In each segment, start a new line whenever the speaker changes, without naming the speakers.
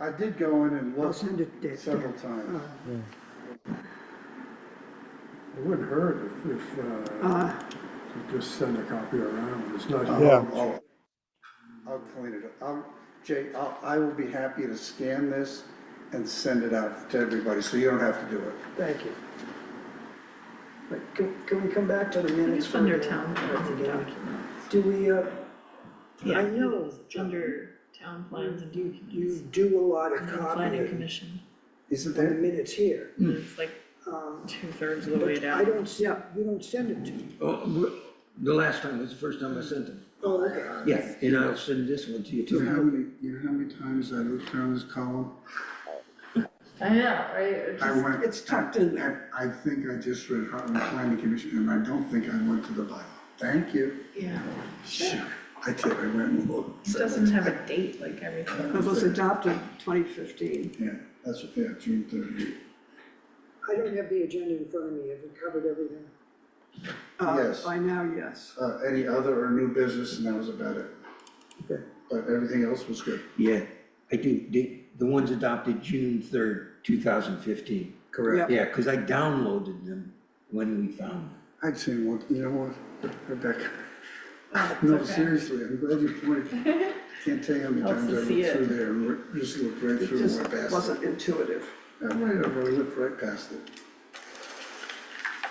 I did go in and
I'll
look
send it to. Uh-huh.
several times.
It wouldn't hurt if, if, uh,
Uh,
you just send a copy around, it's not.
I'll-
Yeah.
I'll- I'll clean it up. I'll- Jay, I'll, I will be happy to scan this and send it out to everybody, so you don't have to do it.
thank you. But can, can we come back to the minutes?
It's
for
under
the-
town plans and documents.
Do we, uh,
Yeah,
I know.
it's under town plans and
you
documents.
do a lot of
And the planning
copying
commission,
Isn't
in the
there?
minutes here.
it's like
Um,
two thirds of the way
but I
down.
don't, se- you don't send it to me.
Oh, w- the last time, was the first time I sent them.
Oh, okay.
Yeah, and I'll send this one to you
You know
too.
how many, you know how many times I looked down this column?
I know, right? It's
I
just-
went.
It's tucked in
there. I think I just read Heartland Planning Commission, and I don't think I went to the bylaw. Thank you.
Yeah,
Shoot, I did, I went and looked.
it doesn't have a date like everything.
It was adopted twenty fifteen.
Yeah, that's, yeah, June thirtieth.
I don't have the agenda in front of me. Have we covered everything? Uh,
Yes.
By now, yes.
Uh, any other or new business, and that was about it.
Okay.
But everything else was good.
Yeah, I do, the, the ones adopted June third, two thousand fifteen.
Correct.
Yeah, because I downloaded them when we found them.
I'd say, well, you know what, Rebecca? No, seriously, I'm glad you pointed. Can't tell you how many
Helps
times I
to
looked
see it.
through there and re- just looked right
It
through and went
just
past it.
wasn't intuitive.
I might have really looked right past it.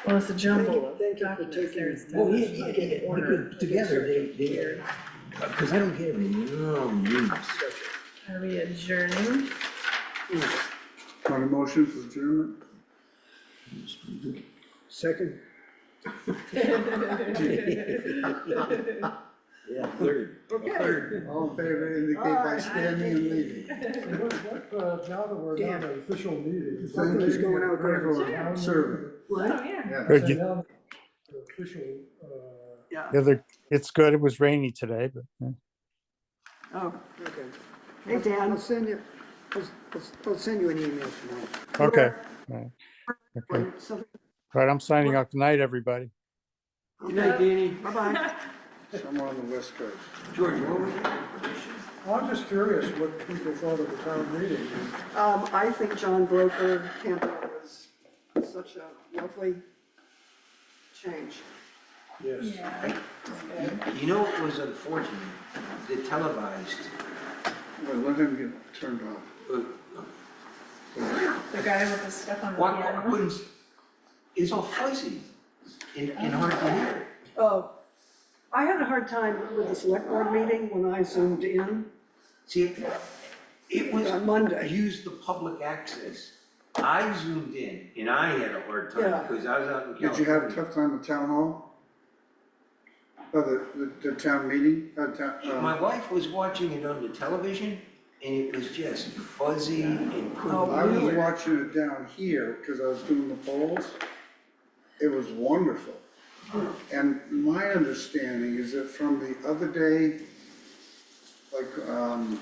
Well, it's a jumble of
Thank you- thank you for
documents
taking-
there instead
Well,
of
Oh, yeah, yeah,
like
yeah,
in order.
because together they, they,
Here.
because I don't get them, oh, yes.
Are we adjourning?
Want a motion for adjournment?
Second,
Yeah, third, third.
All in favor indicate by
Aye.
standing and leaving.
What, what, uh, now that we're
Damn.
not an official meeting.
Thank
Something's
you
going out there.
for serving.
what?
Oh, yeah.
Yeah.
Heard
So
you-
now the Official, uh,
Yeah,
Yeah, they're- it's good. It was rainy today, but. yeah.
oh, okay. Hey, Dan, I'll send you, I'll, I'll- I'll send you an email tonight.
Okay. All right. Okay.
Wait, something-
All right, I'm signing off. Good night, everybody.
Good night, Danny. Bye-bye.
Somewhere on the west coast.
George, what was it?
I'm just curious what people thought of the town meeting.
Um, I think John Broker Campbell was such a lovely change.
Yes.
You know what was unfortunate? The televised, uh,
Well, let him get turned off.
The guy with the stuff on the
what, what
piano.
couldn't, it's all fuzzy and, and hard to hear.
Oh, I had a hard time with the select board meeting when I zoomed in
See, it- it was.
on Monday.
Use the public access. I zoomed in and I had a hard
Yeah.
time because I was out in California.
Did you have a tough time at town hall? Oh, the, the, the town meeting, uh, town,
My
um,
wife was watching it on the television and it was just fuzzy and
I
couldn't
was
hear.
watching it down here, cause I was doing the polls. It was wonderful. And my understanding is that from the other day, like, um,